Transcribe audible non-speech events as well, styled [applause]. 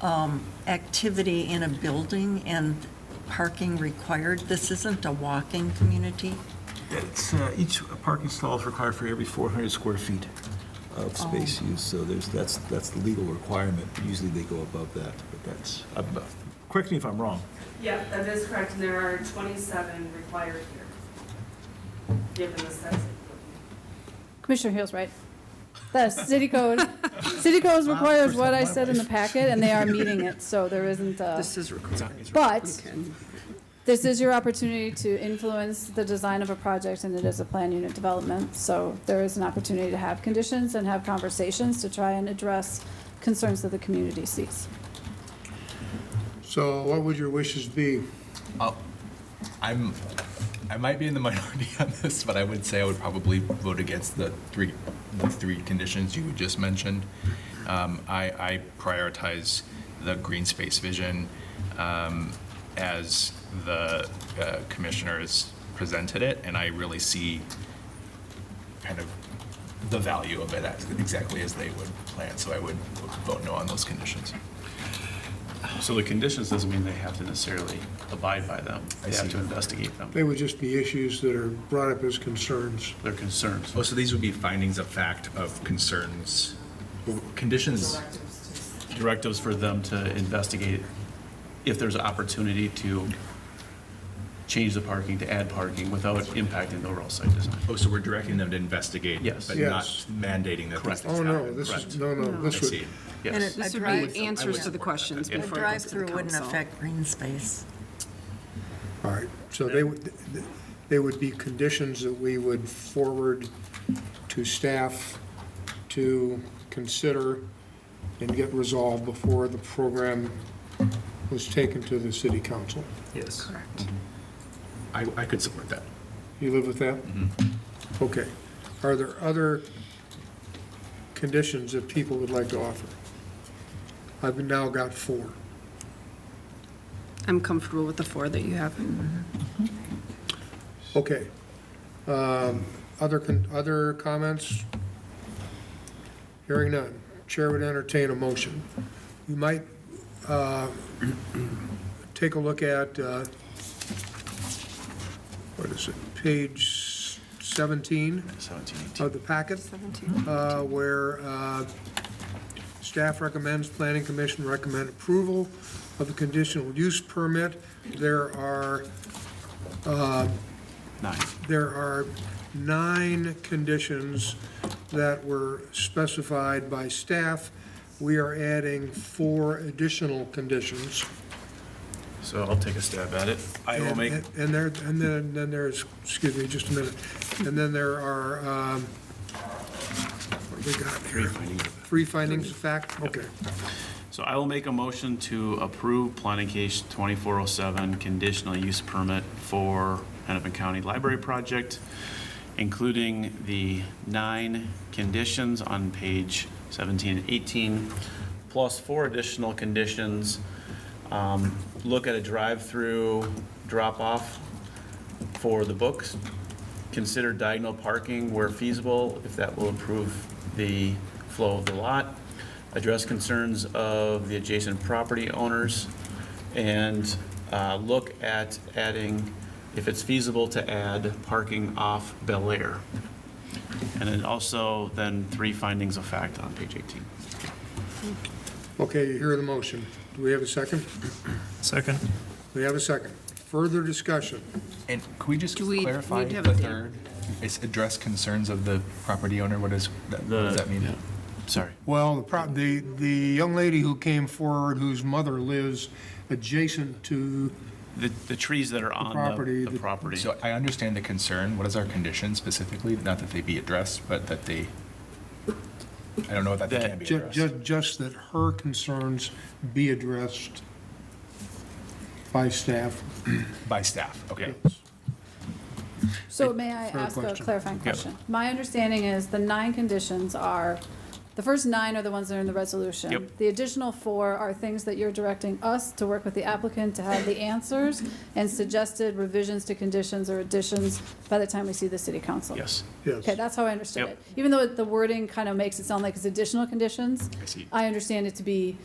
um, activity in a building and parking required? This isn't a walking community? It's, uh, each parking stall is required for every 400 square feet of space use, so there's, that's, that's the legal requirement. Usually they go above that, but that's, I'm, uh, correct me if I'm wrong. Yep, that is correct, and there are 27 required here, given the size. of the- Commissioner Hill's right. The city code, city code requires first what time I in my said in the life. packet, and they are meeting it, so there isn't a, This is recorded. but Okay. this is your opportunity to influence the design of a project, and it is a plan unit development, so there is an opportunity to have conditions and have conversations to try and address concerns that the community sees. So what would your wishes be? I'm, I might be in the minority [laughs] on this, but I would say I would probably vote against the three, the three conditions you just mentioned. Um, I, I prioritize the green space vision um, as the uh, commissioners presented it, and I really see kind of the value of it as, exactly as they would plan, so I would vote no on those conditions. So the conditions doesn't mean they have to necessarily abide by them. They have to investigate them. They would just be issues that are brought up as concerns. They're concerns. Oh, so these would be findings of fact of concerns, conditions Directives for them to investigate if there's an opportunity to change the parking, to add parking without impacting the overall site design. Oh, so we're directing them to investigate? Yes. But not Yes. mandating that these Correct. things Oh, happen? no, this is, correct. no, no, I this would, see. Yes. a This would drive- be answers to the questions A before it goes to the drive-through wouldn't council. affect green space. all right. So they would, they would be conditions that we would forward to staff to consider and get resolved before the program was taken to the city council. Yes. Correct. I, I could support that. You live with that? Okay. Are there other conditions that people would like to offer? I've now got four. I'm comfortable with the four that you have. Okay. Um, Other, con- other comments? Hearing none. Chair would entertain a motion. We might uh, [clears throat] take a look at, uh, what is it, page 17 17, 18. of the packet? uh, where uh, staff recommends, planning commission recommend approval of the conditional use permit. There are, uh, Nine. there are nine conditions that were specified by staff. We are adding four additional conditions. So I'll take a stab at it. I will And- make, And there, and then, then there's, excuse me, just a minute, and then there are, um, what do we got here? Three findings of fact, okay. so I will make a motion to approve planning case 2407 conditional use permit for Hennepin County Library Project, including the nine conditions on page 17 and 18, plus four additional conditions. Um, Look at a drive-through drop-off for the books. Consider diagonal parking where feasible, if that will improve the flow of the lot. Address concerns of the adjacent property owners. And uh, look at adding, if it's feasible, to add parking off Bel Air. And then also, then three findings of fact on page 18. Okay, you hear the motion. Do we have a second? Second. We have a second. Further discussion? And could we just Do we clarify need to have the a date? third? It's address concerns of the property owner, what is, that- what does that mean? Yeah. Sorry. Well, the prob- the, the young lady who came forward, whose mother lives adjacent to, The, the trees that are on property, the- the the- property. So I understand the concern, what is our condition specifically? Not that they be addressed, but that they, I don't know that they That- can be ju- addressed. ju- just that her concerns be addressed by staff. By staff, okay. So may I Fair ask a question. clarifying question? My understanding is the nine conditions are, the first nine are the ones that are in the resolution. Yep. The additional four are things that you're directing us to work with the applicant to have the answers and suggested revisions to conditions or additions by the time we see the city council. Yes. Yes. Okay, that's how I understood Yep. it. Even though the wording kind of makes it sound like it's additional conditions. I see. I understand it to be